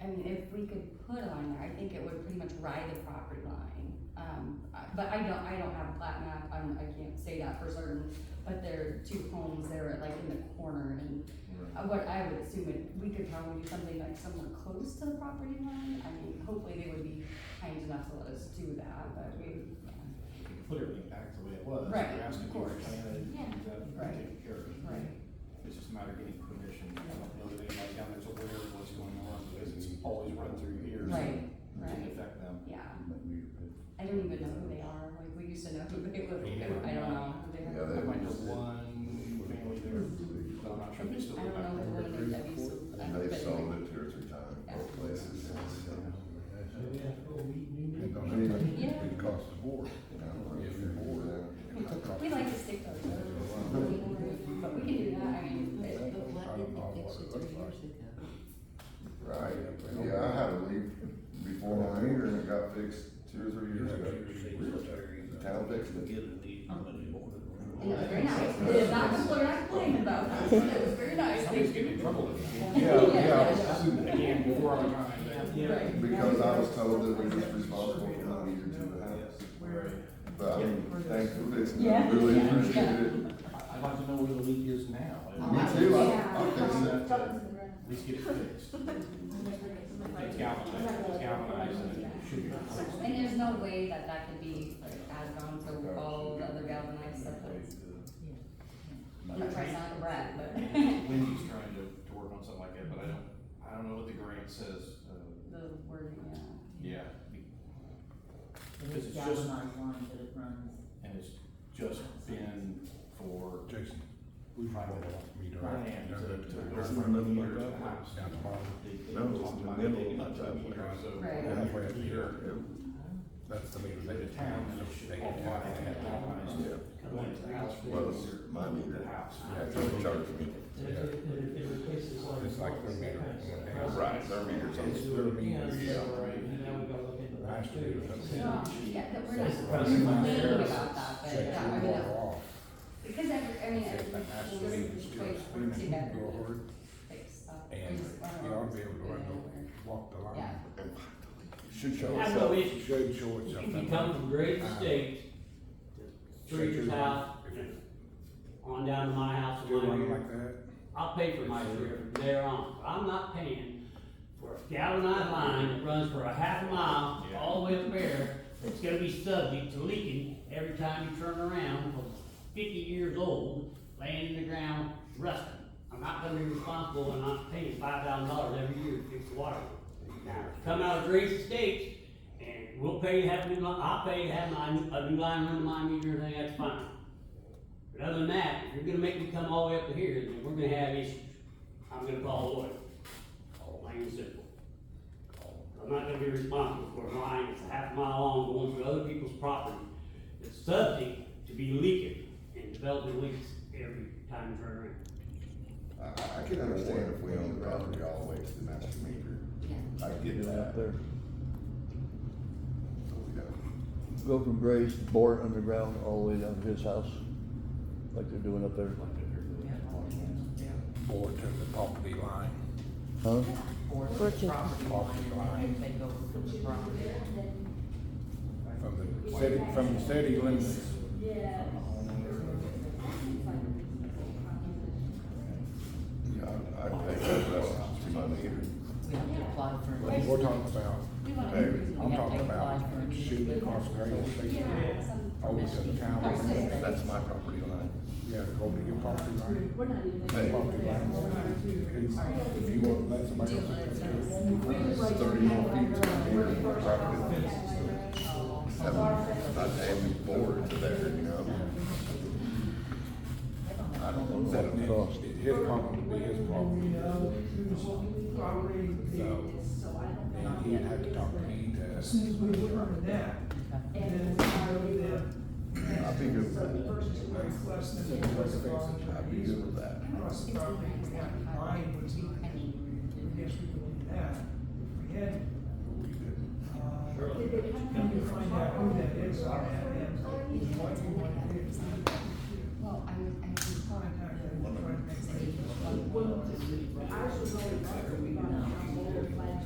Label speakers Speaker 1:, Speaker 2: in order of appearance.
Speaker 1: we could put on there, I think it would pretty much ride the property line. Um, I- but I don't, I don't have a plat map, I'm, I can't say that for certain, but there are two homes there, like in the corner, and uh, what I would assume it, we could probably do something like somewhere close to the property line, I mean, hopefully they would be kind enough to let us do that, but we, yeah,
Speaker 2: Put everything back the way it was.
Speaker 1: Right,
Speaker 2: You're asking
Speaker 1: of
Speaker 2: for a
Speaker 1: course.
Speaker 2: plan and
Speaker 1: Yeah.
Speaker 2: that would be
Speaker 1: Right.
Speaker 2: taken care of.
Speaker 1: right.
Speaker 2: It's just a matter of getting permission. I don't know that anybody down there's aware of what's going on because it's always run through here. so
Speaker 1: Right,
Speaker 2: It can
Speaker 1: right,
Speaker 2: affect them.
Speaker 1: yeah. I don't even know who they are, like, we used to know who they were, I don't know who they are.
Speaker 3: Yeah, they-
Speaker 2: There might be one family there, but I'm not sure if they still
Speaker 1: Hmm. I
Speaker 2: live
Speaker 1: don't know the
Speaker 2: back there.
Speaker 1: woman that used to.
Speaker 3: And
Speaker 1: but-
Speaker 3: they've sold it two or three times, both places. uh, I mean,
Speaker 1: Yeah.
Speaker 3: It costs the board, you know, if you're bored, then. it costs-
Speaker 1: We like to stick to our guns, but we can do that, I mean, it-
Speaker 4: But why did they fix it three years ago?
Speaker 3: Right, yeah, I had to leave before my meter and it got fixed two or three years ago. The town fixed it.
Speaker 1: it was very nice, it is not, what we're not complaining about, it was very nice.
Speaker 2: Somebody's getting in trouble. with it.
Speaker 3: Yeah, yeah.
Speaker 2: Again, before our time.
Speaker 1: Right.
Speaker 3: Because I was told that we was responsible for not meter to the house. But I mean, thanks for fixing it,
Speaker 1: Yeah.
Speaker 3: really
Speaker 1: Yeah.
Speaker 3: appreciate it.
Speaker 2: I- I'd like to know where the leak is now.
Speaker 3: Me too, I- I fixed that.
Speaker 2: At least get it fixed. It's galvanized, it's galvanized and it should be. replaced.
Speaker 1: And there's no way that that could be like added on to all the other galvanized stuff that's, I'm not trying to sound a brat, but
Speaker 2: Wendy's trying to, to work on something like that, but I don't, I don't know what the grant says, uh,
Speaker 1: the word, yeah.
Speaker 2: yeah. be-
Speaker 4: It
Speaker 2: It's just-
Speaker 4: was galvanized line, but it runs.
Speaker 2: And it's just been for
Speaker 5: Jason, we might have me to.
Speaker 2: Ryan to, to go
Speaker 5: There's
Speaker 2: from the
Speaker 5: nothing
Speaker 2: meter to the
Speaker 5: like that.
Speaker 2: house.
Speaker 5: Down the bottom.
Speaker 2: They- they
Speaker 3: No, it's
Speaker 2: talk
Speaker 3: in the
Speaker 2: about
Speaker 3: middle
Speaker 2: digging
Speaker 3: of
Speaker 2: up
Speaker 3: that
Speaker 2: the meter, so
Speaker 1: Right.
Speaker 5: Halfway up
Speaker 2: Meter.
Speaker 5: here, that's the meter.
Speaker 2: Like the town, it should all apply to that galvanized.
Speaker 3: Yeah.
Speaker 2: Going to the house.
Speaker 3: Well, it's my meter.
Speaker 2: The house.
Speaker 3: Yeah, they charged me.
Speaker 6: And if it, and if it replaces like.
Speaker 5: It's like their meter.
Speaker 3: Right, their meter's on.
Speaker 5: It's their meter.
Speaker 6: Yeah, so, and now we gotta look into that
Speaker 5: Last
Speaker 6: too.
Speaker 5: year, that's-
Speaker 1: No, yeah, that we're
Speaker 6: So-
Speaker 1: not complaining about that, but
Speaker 5: Shut
Speaker 1: yeah, I
Speaker 5: your
Speaker 1: mean,
Speaker 5: water
Speaker 1: that-
Speaker 5: off.
Speaker 1: because every, I mean,
Speaker 5: If that has to be,
Speaker 1: every,
Speaker 5: it's
Speaker 1: this
Speaker 5: still
Speaker 1: place
Speaker 5: spinning,
Speaker 1: works together.
Speaker 5: go hard,
Speaker 1: Fix stuff. We
Speaker 5: And
Speaker 1: just- I don't
Speaker 5: you
Speaker 1: know.
Speaker 5: ought to be able to run
Speaker 1: Yeah.
Speaker 5: the, walk the line.
Speaker 1: Yeah.
Speaker 3: Should show
Speaker 6: I
Speaker 3: us
Speaker 6: have no
Speaker 3: up.
Speaker 6: issue,
Speaker 5: Should show it
Speaker 6: if you
Speaker 5: something. Uh,
Speaker 6: come from Great State, three years out, on down to my house,
Speaker 5: Do
Speaker 6: my
Speaker 5: one
Speaker 6: year,
Speaker 5: like that.
Speaker 6: I'll pay for my career from there on. I'm not paying for a galvanized line that runs for a half mile all the way up there. It's gonna be subject to leaking every time you turn around, because it's fifty years old, laying in the ground, rusting. I'm not gonna be responsible and not paying five thousand dollars every year to fix the water. Now, if you come out of Grace Estates, and we'll pay to have a new line, I'll pay to have my, a new line run to my meter, and that's fine. But other than that, if you're gonna make me come all the way up to here, then we're gonna have issues. I'm gonna call a lawyer. Plain and simple. I'm not gonna be responsible for a line that's a half mile long going through other people's property. It's subject to be leaking and developing leaks every time you turn around.
Speaker 3: I, I can understand if we own the property all the way to the master meter.
Speaker 1: Yeah.
Speaker 3: I get
Speaker 7: Get
Speaker 3: that.
Speaker 7: out there,
Speaker 3: But we don't.
Speaker 7: go from Gray's, bore it underground all the way down to his house, like they're doing up there,
Speaker 5: Or to the property line.
Speaker 7: huh?
Speaker 4: Or the
Speaker 8: Fortune.
Speaker 4: property
Speaker 5: Property
Speaker 4: line,
Speaker 5: line.
Speaker 4: and they go from the property.
Speaker 5: From the city, from the city limits.
Speaker 3: Yeah, I, I pay that well to my meter.
Speaker 4: We have to apply for.
Speaker 5: We're talking about,
Speaker 1: We want
Speaker 3: Hey,
Speaker 1: to.
Speaker 5: I'm talking about shooting across Gray's State,
Speaker 1: Yeah, some.
Speaker 5: over to the town.
Speaker 3: That's my property line.
Speaker 5: Yeah, go to your property line.
Speaker 3: Hey,
Speaker 5: Property line. If you want, let somebody else. take care of it.
Speaker 3: it's thirty more feet to my meter than my property line. I'm not damn bored to there, you know? I don't know.
Speaker 5: That,
Speaker 3: that
Speaker 5: it-
Speaker 3: cost.
Speaker 5: it- his problem would be his problem. So, and he'd have to talk to me to.
Speaker 3: I'd be good with that. I'd be good with
Speaker 9: Across
Speaker 3: that.
Speaker 9: the property, we have to find what's not,
Speaker 1: I mean,
Speaker 9: yes, we would do that, if we had,
Speaker 3: We did.
Speaker 9: uh, we could find out who that is, on that end, what you want to do.
Speaker 1: well, I was, I was.
Speaker 9: Contact them,